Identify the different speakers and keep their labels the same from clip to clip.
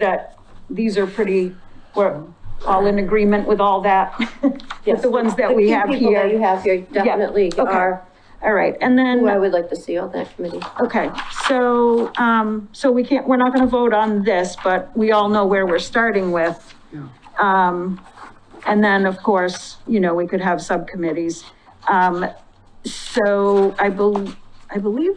Speaker 1: that these are pretty, we're all in agreement with all that, with
Speaker 2: Yes.
Speaker 1: the ones that we
Speaker 2: key
Speaker 1: have
Speaker 2: people that you
Speaker 1: here.
Speaker 2: have here
Speaker 1: Yeah,
Speaker 2: definitely
Speaker 1: okay.
Speaker 2: are
Speaker 1: All right, and then.
Speaker 2: who I would like to see on that committee.
Speaker 1: Okay, so, um, so we can't, we're not gonna vote on this, but we all know where we're starting with. Um, and then, of course, you know, we could have subcommittees. Um, so I bel, I believe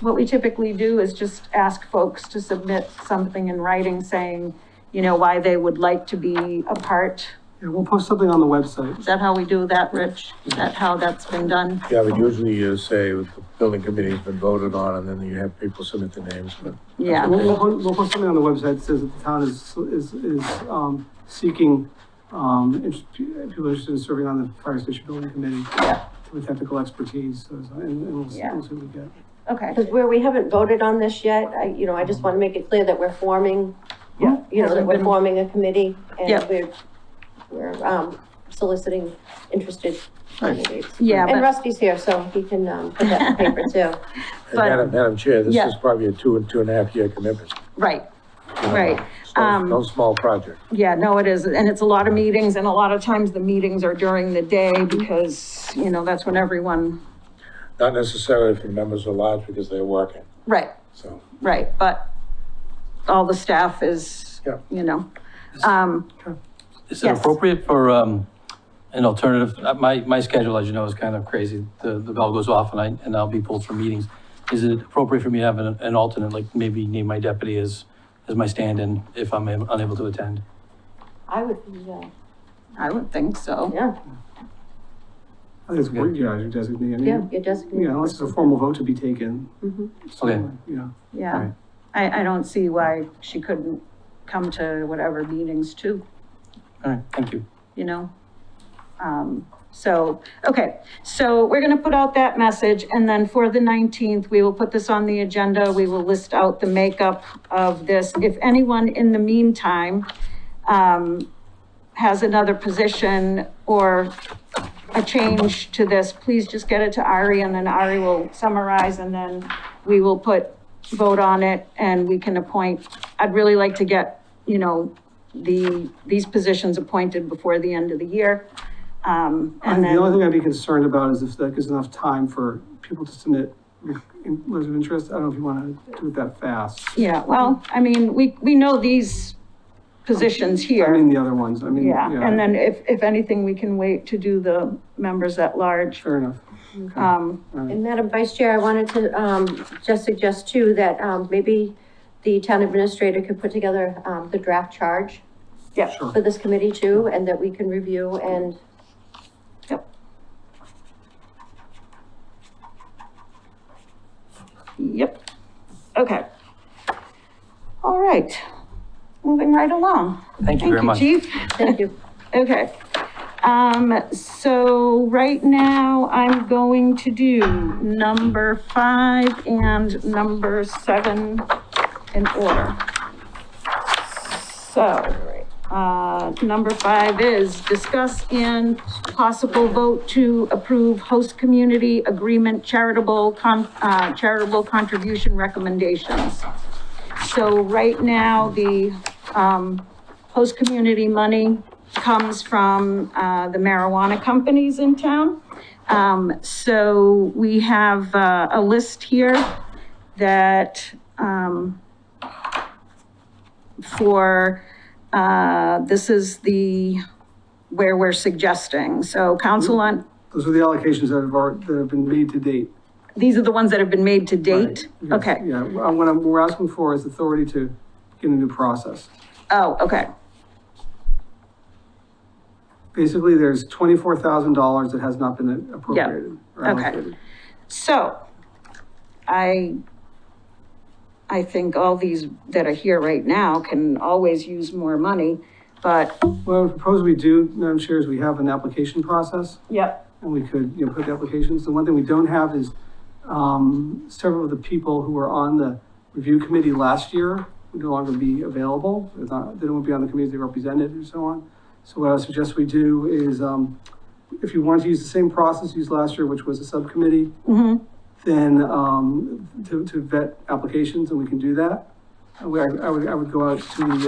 Speaker 1: what we typically do is just ask folks to submit something in writing saying, you know, why they would like to be a part.
Speaker 3: Yeah, we'll post something on the website.
Speaker 1: Is that how we do that, Rich? Is that how that's been done?
Speaker 4: Yeah, but usually you say the building committee's been voted on and then you have people submit their names, but.
Speaker 1: Yeah.
Speaker 3: We'll, we'll, po- we'll post something on the website that says that the town is, is, is, um, seeking, um, inter- people interested in serving on the fire station building committee
Speaker 1: Yeah.
Speaker 3: with technical expertise, so, so- and, and we'll see
Speaker 1: Yeah.
Speaker 3: we'll see what we get.
Speaker 1: Okay.
Speaker 2: Because where we haven't voted on this yet, I, you know, I just want to make it clear that we're forming,
Speaker 1: Yeah.
Speaker 2: you know, that we're forming a committee and
Speaker 1: Yep.
Speaker 2: we're, we're, um, soliciting interested candidates.
Speaker 1: Yeah,
Speaker 2: And
Speaker 1: but-
Speaker 2: Rusty's here, so he can, um, put that in paper too.
Speaker 4: And Madam, Madam Chair, this
Speaker 1: Yeah.
Speaker 4: is probably a two and two and a half year commitment.
Speaker 1: Right,
Speaker 4: you know,
Speaker 1: Right,
Speaker 4: it's No
Speaker 1: um,
Speaker 4: no small project.
Speaker 1: Yeah, no, it is, and it's a lot of meetings, and a lot of times the meetings are during the day because, you know, that's when everyone,
Speaker 4: Not necessarily if the members are large because they're working,
Speaker 1: right,
Speaker 4: so.
Speaker 1: right, but all the staff is,
Speaker 4: Yeah.
Speaker 1: you know. Um,
Speaker 5: Is it
Speaker 1: Yes.
Speaker 5: appropriate for um, an alternative? uh, My, my schedule, as you know, is kind of crazy. The, the bell goes off and I, and I'll be pulled from meetings. Is it appropriate for me to have an, an alternate, like maybe name my deputy as, as my stand-in if I'm unable to attend?
Speaker 2: I would, yeah,
Speaker 1: I would think so.
Speaker 2: yeah,
Speaker 3: I think it's great, you guys are designated.
Speaker 2: yeah, you're just.
Speaker 3: Yeah, unless there's a formal vote to be taken.
Speaker 1: Mm-hmm.
Speaker 3: So,
Speaker 5: Okay.
Speaker 3: Yeah,
Speaker 1: Yeah,
Speaker 5: Right.
Speaker 1: I, I don't see why she couldn't come to whatever meetings too,
Speaker 5: All right, thank you.
Speaker 1: you know? Um, so, okay, so we're gonna put out that message, and then for the nineteenth, we will put this on the agenda, we will list out the makeup of this. If anyone in the meantime, um, has another position or a change to this, please just get it to Ari, and then Ari will summarize, and then we will put, vote on it, and we can appoint. I'd really like to get, you know, the, these positions appointed before the end of the year. Um,
Speaker 3: I
Speaker 1: and
Speaker 3: think
Speaker 1: then.
Speaker 3: the only thing I'd be concerned about is if that gives enough time for people to submit in- letters of interest. I don't know if you want to do it that fast.
Speaker 1: Yeah, well, I mean, we, we know these positions
Speaker 3: I
Speaker 1: here.
Speaker 3: mean, the other ones, I mean,
Speaker 1: Yeah,
Speaker 3: yeah.
Speaker 1: and then if, if anything, we can wait to do the members at large.
Speaker 3: Fair enough.
Speaker 1: Um,
Speaker 2: And Madam Vice Chair, I wanted to, um, just suggest too that, um, maybe the town administrator could put together, um, the draft charge
Speaker 1: yeah,
Speaker 3: Sure.
Speaker 2: for this committee too, and that we can review and
Speaker 1: yep. Okay. All right, moving right along.
Speaker 5: Thank you very much.
Speaker 1: Thank you, chief.
Speaker 2: thank you.
Speaker 1: Okay. Um, so right now I'm going to do number five and number seven in order. So, uh, number five is discuss and possible vote to approve host community agreement charitable con, uh, charitable contribution recommendations. So right now, the, um, host community money comes from uh, the marijuana companies in town. Um, So we have uh, a list here that um, for, uh, this is the, where we're suggesting. So council on,
Speaker 3: Those are the allocations that have, alre- that have been made to date.
Speaker 1: these are the ones that have been made to date?
Speaker 3: Yes,
Speaker 1: Okay,
Speaker 3: Yeah, and what I'm- we're asking for is authority to get a new process.
Speaker 1: oh, okay,
Speaker 3: Basically, there's twenty-four thousand dollars that has not been appropriated. or
Speaker 1: okay.
Speaker 3: allocated.
Speaker 1: so I, I think all these that are here right now can always use more money, but
Speaker 3: What I would propose we do, Madam Chair, is we have an application process,
Speaker 1: Yep.
Speaker 3: and we could, you know, put the applications. The one thing we don't have is, um, several of the people who were on the review committee last year would no longer be available. They're not- They don't be on the committees they represented and so on. So what I suggest we do is, um, if you want to use the same process used last year, which was a subcommittee, then um, to, to vet applications, and we can do that. I would, I would- I would go out to the,